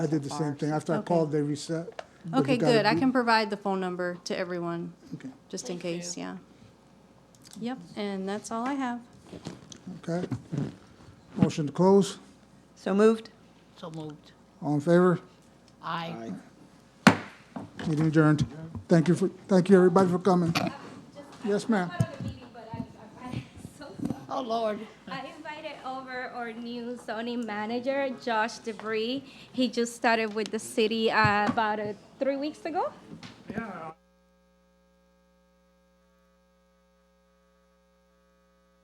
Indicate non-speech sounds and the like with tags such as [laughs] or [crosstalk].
I did the so same far, thing. so- After I okay. called, they reset. but we Okay, got it- good. I can provide the phone number to everyone, Okay, just in case, yeah. Yep, and that's all I have. okay. Motion to close. So moved? So moved. All in favor? Aye. Meeting adjourned. Thank you for, thank you, everybody, for coming. Yes, ma'am. part of the meeting, but I, I, [laughs] so sorry. Oh, Lord. I invited over our new zoning manager, Josh DeBree. He just started with the city uh, about uh, three weeks ago. Yeah,